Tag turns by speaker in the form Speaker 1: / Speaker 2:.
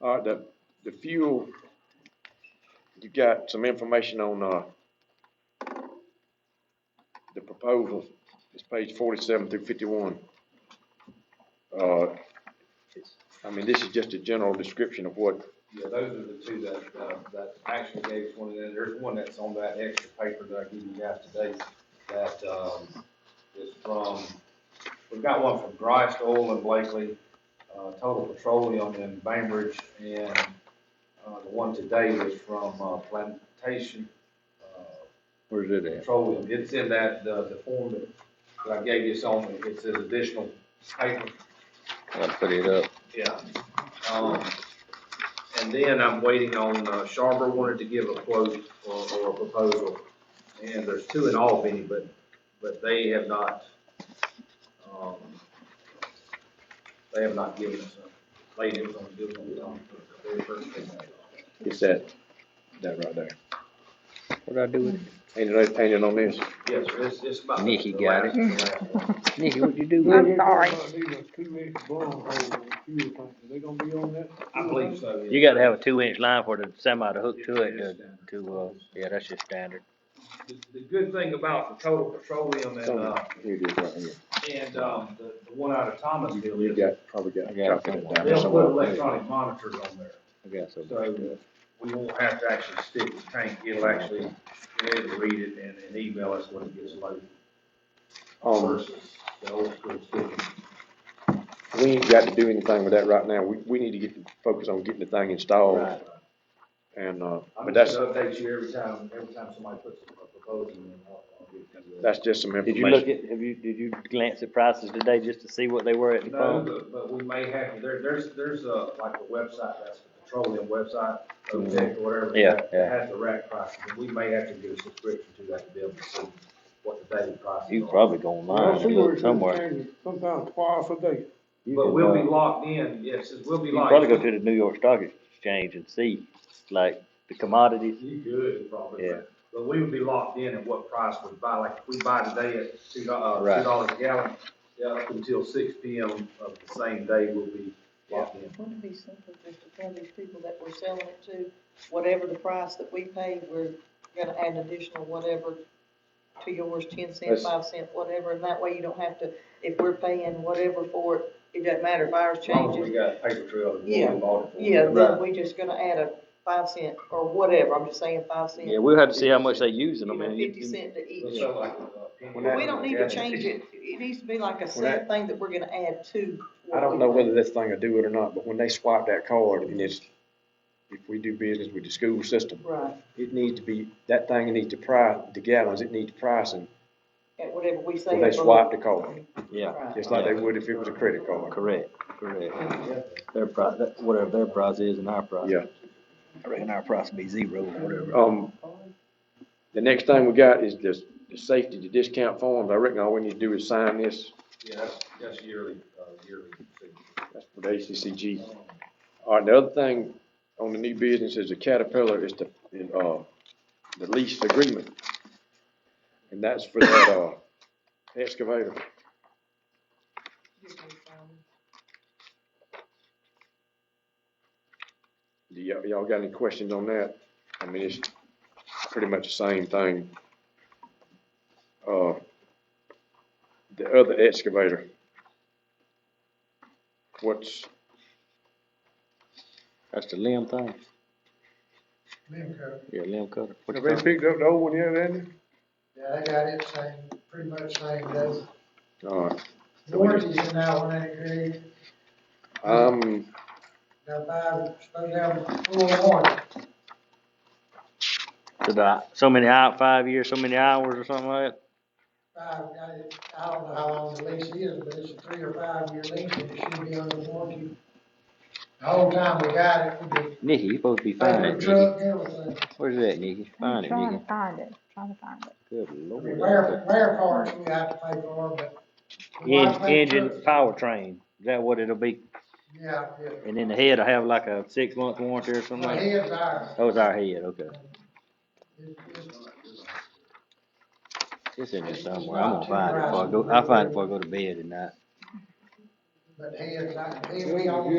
Speaker 1: All right, the, the fuel, you got some information on, uh, the proposal, it's page forty-seven through fifty-one. Uh, I mean, this is just a general description of what,
Speaker 2: Yeah, those are the two that, uh, that actually gave us one, and then there's one that's on that extra paper that I gave you guys today, that, um, is from, we've got one from Grice Oil and Blakely, uh, Total Petroleum in Bainbridge, and, uh, the one today was from, uh, Plantation, uh,
Speaker 1: where's it at?
Speaker 2: petroleum, it's in that, the, the form that that I gave you, it's on, it says additional paper.
Speaker 3: I'll put it up.
Speaker 2: Yeah. Um, and then I'm waiting on, uh, Sharber wanted to give a quote or, or a proposal, and there's two in Albany, but, but they have not, um, they have not given us a, they didn't want to do it on the very first thing.
Speaker 1: It's that, that right there.
Speaker 3: What'd I do with
Speaker 1: Ain't it, ain't it on this?
Speaker 2: Yes, sir, it's, it's about. the-
Speaker 3: Nikki
Speaker 2: the
Speaker 3: got
Speaker 2: last-
Speaker 3: it.
Speaker 2: the last one.
Speaker 3: it? Nikki, what'd you do with
Speaker 4: I'm
Speaker 3: it?
Speaker 4: sorry.
Speaker 5: They gonna be on that?
Speaker 2: I believe so. yeah.
Speaker 3: You gotta have a two inch line for the semi to hook to it, to, to, uh, yeah, that's just standard.
Speaker 2: The, the good thing about the total petroleum and, uh,
Speaker 1: Here it is right here.
Speaker 2: And, um, the, the one out of Thomasville
Speaker 1: You
Speaker 2: is,
Speaker 1: got, probably got.
Speaker 3: I got it
Speaker 1: copy of that
Speaker 3: somewhere.
Speaker 1: down
Speaker 2: they'll put
Speaker 1: somewhere.
Speaker 2: electronic monitors on there,
Speaker 3: I got some.
Speaker 2: so we won't have to actually stick the tank, it'll actually, be able to read it and, and email us when it gets loaded.
Speaker 3: Oh.
Speaker 1: Um,
Speaker 2: Versus the old school sticking.
Speaker 1: we ain't got to do anything with that right now. We, we need to get, focus on getting the thing
Speaker 3: Oh,
Speaker 1: installed. And, uh,
Speaker 2: I'm
Speaker 1: but
Speaker 2: just
Speaker 1: that's,
Speaker 2: gonna update you every time, every time somebody puts a proposal in, I'll, I'll give you.
Speaker 1: that's just some
Speaker 3: Did you look
Speaker 1: information.
Speaker 3: at, have you, did you glance at prices today just to see what they were at the
Speaker 2: No,
Speaker 3: pump?
Speaker 2: but, but we may have, there, there's, there's a, like a website, that's the petroleum website, OTEC or whatever.
Speaker 3: Mm-hmm. Yeah,
Speaker 2: that
Speaker 3: yeah.
Speaker 2: Has the rack prices, and we may have to do a subscription to that to be able to see what the daily prices are.
Speaker 3: You can probably go online and look somewhere.
Speaker 5: Sometimes twice a day.
Speaker 3: You
Speaker 2: But
Speaker 3: can,
Speaker 2: we'll be
Speaker 3: uh,
Speaker 2: locked in, yes, it will be
Speaker 3: You can probably go
Speaker 2: locked.
Speaker 3: to the New York Stock Exchange and see, like, the commodities.
Speaker 2: You could, probably,
Speaker 3: Yeah.
Speaker 2: but, but we would be locked in at what price we buy, like, if we buy today at two, do- uh,
Speaker 3: Right.
Speaker 2: two dollars a gallon, yeah, up until six P M of the same day, we'll be locked in.
Speaker 6: Wouldn't it be simple just to tell these people that we're selling it to, whatever the price that we pay, we're gonna add an additional whatever to yours, ten cent,
Speaker 1: That's-
Speaker 6: five cent, whatever, and that way you don't have to, if we're paying whatever for it, it doesn't matter if ours
Speaker 2: As long as we
Speaker 6: changes.
Speaker 2: got a paper trail of what
Speaker 6: Yeah.
Speaker 2: we bought it for.
Speaker 6: Yeah,
Speaker 3: Right.
Speaker 6: then we just gonna add a five cent or whatever, I'm just saying five cent.
Speaker 3: Yeah, we'll have to see how much they using
Speaker 6: You know,
Speaker 3: them. and you
Speaker 6: fifty
Speaker 3: can-
Speaker 6: cent to each.
Speaker 2: It's not like, uh,
Speaker 6: But We don't need to change it, it needs to be like a set thing that we're gonna add to. what
Speaker 1: I don't
Speaker 6: we
Speaker 1: know
Speaker 6: pay.
Speaker 1: whether this thing will do it or not, but when they swipe that card and it's, if we do business with the school system,
Speaker 6: Right,
Speaker 1: it needs to be, that thing needs to price, the gallons, it needs pricing
Speaker 6: at whatever we say.
Speaker 1: when they
Speaker 6: above.
Speaker 1: swipe the card,
Speaker 3: Yeah,
Speaker 6: Right.
Speaker 1: just like they would if it was a credit card.
Speaker 3: correct, correct. Their price, that- whatever their price is and our price.
Speaker 1: Yeah.
Speaker 3: I reckon our price will be zero or whatever.
Speaker 1: Um, the next thing we got is this, the safety, the discount forms. I reckon all we need to do is sign this.
Speaker 2: Yeah, that's, that's yearly, uh, yearly. fee.
Speaker 1: That's for the ACCG. All right, the other thing on the new business is the Caterpillar is the, is, uh, the lease agreement. And that's for that, uh, excavator. Do y'all, y'all got any questions on that? I mean, it's pretty much the same thing. Uh, the other excavator. What's,
Speaker 3: That's the limb thing.
Speaker 7: Limb cover.
Speaker 3: Yeah, limb cutter. What you
Speaker 5: Have they
Speaker 3: call it?
Speaker 5: picked up the old one yet, Andy?
Speaker 7: Yeah, I got it same, pretty much same, that's,
Speaker 1: uh,
Speaker 7: warranties in that one ain't great.
Speaker 1: I'm,
Speaker 7: Now, five, supposed to have full warranty.
Speaker 3: To the, so many hour, five years, so many hours or something like that?
Speaker 7: Five, I, I don't know how long the lease is, but it's a three or five year lease, and it should be under warranty. The whole time we got it, we did,
Speaker 3: Nikki, you supposed to be finding
Speaker 7: paper
Speaker 3: it, Nikki.
Speaker 7: truck, everything.
Speaker 3: Where's that, Nikki?
Speaker 4: I'm
Speaker 3: Find it,
Speaker 4: trying
Speaker 3: Nikki.
Speaker 4: to find it, trying to find it.
Speaker 3: Good
Speaker 7: I mean,
Speaker 3: lord.
Speaker 7: Rare, rare parts we have to pay for, but. a lot of
Speaker 3: En-
Speaker 7: paper
Speaker 3: Engine
Speaker 7: trucks-
Speaker 3: powertrain, is that what it'll be?
Speaker 7: Yeah, yeah.
Speaker 3: And then the head will have like a six month warranty or something
Speaker 7: My
Speaker 3: like that?
Speaker 7: head's ours.
Speaker 3: Oh, it's our head, okay.
Speaker 7: It- it's-
Speaker 3: It's in there somewhere. I'm gonna find it before I go, I'll find it before I go to bed tonight.
Speaker 7: But head's, not- head, we own